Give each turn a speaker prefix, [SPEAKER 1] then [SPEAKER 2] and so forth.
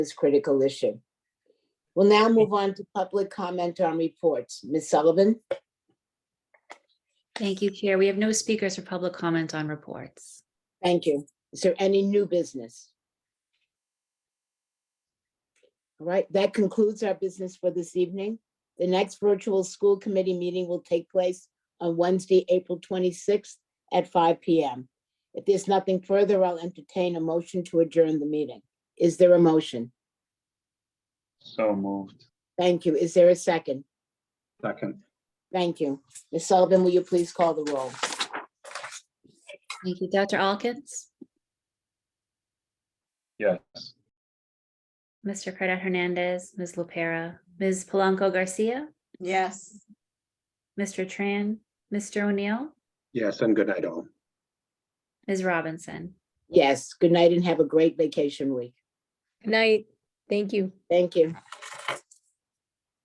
[SPEAKER 1] this critical issue. We'll now move on to public comment on reports. Ms. Sullivan?
[SPEAKER 2] Thank you, Chair. We have no speakers for public comment on reports.
[SPEAKER 1] Thank you. Is there any new business? All right, that concludes our business for this evening. The next virtual school committee meeting will take place on Wednesday, April 26th at 5 PM. If there's nothing further, I'll entertain a motion to adjourn the meeting. Is there a motion?
[SPEAKER 3] So moved.
[SPEAKER 1] Thank you. Is there a second?
[SPEAKER 3] Second.
[SPEAKER 1] Thank you. Ms. Sullivan, will you please call the roll?
[SPEAKER 2] Thank you, Dr. Alkins,
[SPEAKER 3] Yes.
[SPEAKER 2] Mr. Carter Hernandez, Ms. LaPera, Ms. Polanco Garcia,
[SPEAKER 4] Yes.
[SPEAKER 2] Mr. Tran, Mr. O'Neill,
[SPEAKER 3] Yes, and good night all.
[SPEAKER 2] Ms. Robinson.
[SPEAKER 1] Yes, good night and have a great vacation week.
[SPEAKER 5] Good night. Thank you.
[SPEAKER 1] Thank you.